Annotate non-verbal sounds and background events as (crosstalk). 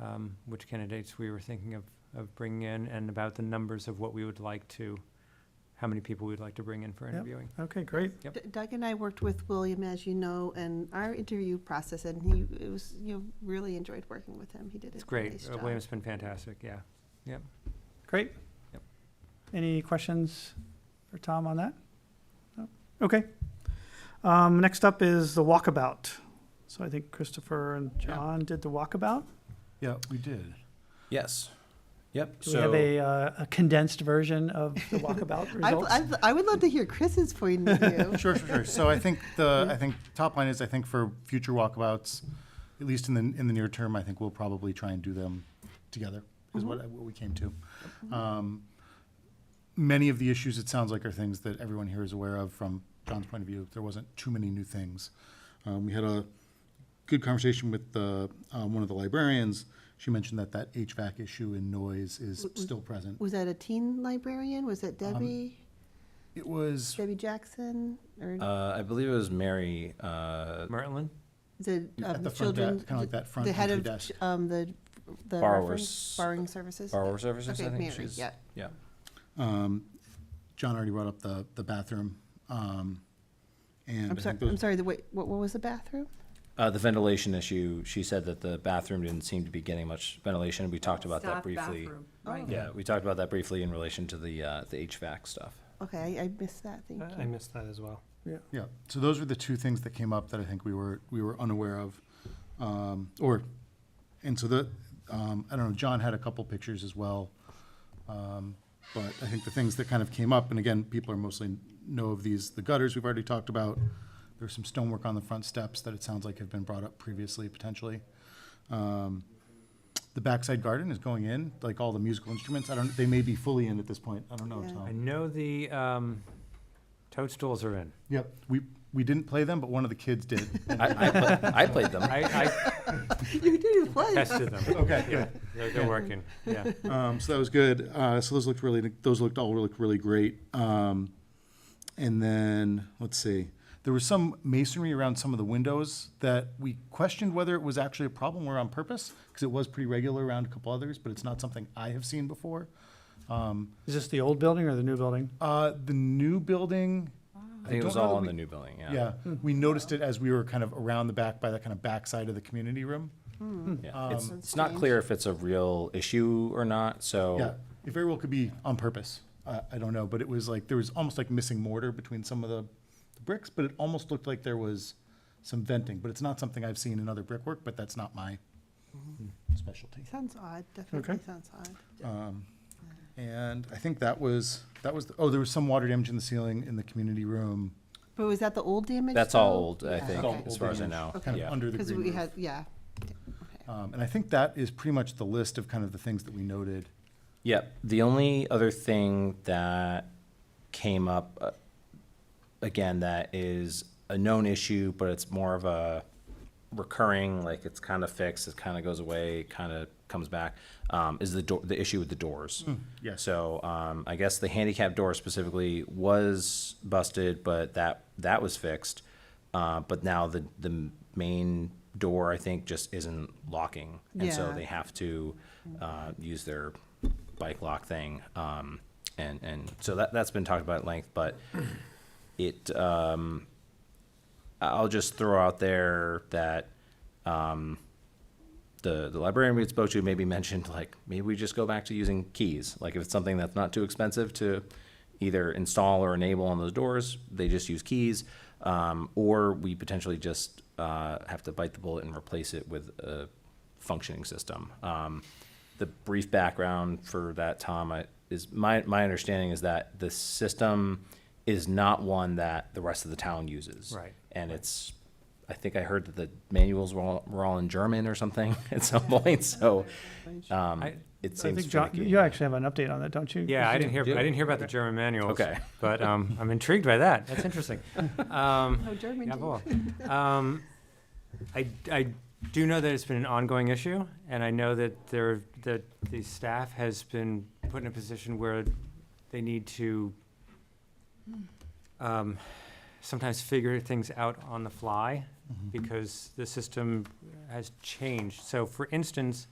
um, which candidates we were thinking of, of bringing in and about the numbers of what we would like to, how many people we'd like to bring in for Yep. interviewing. Okay, great. Yep. D- Doug and I worked with William, as you know, and our interview process, and he, it was, you know, really enjoyed working with him. He did a It's great. nice Uh, job. William's been fantastic, yeah. Great. Yep. Any questions for Tom on that? No? Okay. Um, next up is the walkabout. So I think Christopher and Yeah. John did the walkabout. Yeah, we did. Yes. Yep. Do we so have a, uh, a condensed version of the walkabout I, results? I, I would love to hear Chris's point of view. (laughs) Oh, Sure, sure, sure. So I think the, I think top line is, I think for future walkabouts, at least in the, in the near term, I think we'll probably try and do them together, is what, I- what we came to. Um, Many of the issues, it sounds like, are things that everyone here is aware of from John's point of view. There wasn't too many new things. Um, We had a good conversation with the, um, one of the librarians. She mentioned that that HVAC issue and noise is still present. Was that a teen librarian? Was that Um, Debbie, It was Debbie Jackson, or uh, I believe it was Mary. Uh, Mertlin? the at um, the front children? desk, kinda like that front The head of, entry ch- desk. um, the, the. Borrowers- reference- Borrowing services? Borrower services. I Okay, think Mary, she's. yeah. Yeah. John already brought up the, the bathroom. Um, and I'm I sorry, think I'm those- sorry, the, wait, what, what was the bathroom? Uh, the ventilation issue. She said that the bathroom didn't seem to be getting much ventilation. We talked about that Staff briefly. bathroom, Right. Yeah, we talked about that briefly in relation to the uh, the (laughs) HVAC stuff. Okay, I, I missed that, thank I I you. missed that as well. Yeah, so those were the two things that came up that I think we were, we were unaware of. Um, or, and so the, um, I don't know, John had a couple pictures as well. Um, but I think the things that kind of came up, and again, people are mostly know of these, the gutters we've already talked about. There's some stonework on the front steps that it sounds like have been brought up previously, potentially. Um, the backside garden is going in, like all the musical instruments. I don't, they may be fully in at this point. I don't know, Yeah. Tom. I know the um, toadstools are in. Yep, we, we didn't play them, but one of the kids did. I, I, pla- I played them. I, (laughs) (laughs) You didn't I play. tested them. Okay, Yeah, they're, they're (laughs) working, yeah. Um, so that was good. Uh, so those looked really, those looked all looked really great. Um, and then let's see, there was some masonry around some of the windows that we questioned whether it was actually a problem or on purpose because it was pretty regular around a couple others, but it's not something I have seen before. Is this the old building or the new building? Uh, the new building. I think it don't was know that all on we- the new building. Yeah. Yeah, we noticed it as we were kind of around the back by the kind of backside of the community room. Yeah. it's um, That's it's not strange. clear if it's a real issue or not. So Yeah, it very well could be on purpose. I, I don't know, but it was like, there was almost like missing mortar between some of the the bricks, but it almost looked like there was some venting, but it's not something I've seen in other brickwork, but that's not my specialty. Sounds odd, definitely sounds odd. And I think that was, that was, oh, there was some water damage in the ceiling in the community room, But was that the old damage? that's all though? old. I Yeah, think, okay. as far as I know. Okay. kind Yeah. of under the Because green we roof. had, yeah. Uh, Um, and I think that is pretty much the list of kind of the things that we noted. Yep. The only other thing that came up, uh, again, that is a known issue, but it's more of a recurring, like it's kind of fixed, it kind of goes away, kind of comes back, um, is the door, the issue with the doors. yes. So, um, I guess the handicap door specifically was busted, but that, that was fixed. Uh, but now the, the main door, I think, just isn't locking. And so Yeah. they have to uh, use their bike lock thing. Um, and, and so that, that's been talked about at length, but it, um, I'll just throw out there that um, the, the librarian we spoke to maybe mentioned, like, maybe we just go back to using keys. Like, if it's something that's not too expensive to either install or enable on those doors, they just use keys. Um, or we potentially just uh, have to bite the bullet and replace it with a functioning system. Um, the brief background for that, Tom, I, is my, my understanding is that the system is not one that the rest of the town uses. Right. And it's, I think I heard that the manuals were all, were all in German or something (laughs) at some point, so, um, I- it I seems think John, finicky. you actually have an update on that, don't you? Yeah, I didn't hear, Do I it. didn't hear about the German manuals. Okay. But um, I'm intrigued by that. That's (laughs) interesting. Um, Oh, German. Yeah, did. well, um, I, I do know that it's been an ongoing issue, and I know that there, that the staff has been put in a position where they need to, um, sometimes figure things out on the fly, because the system has changed. So for instance,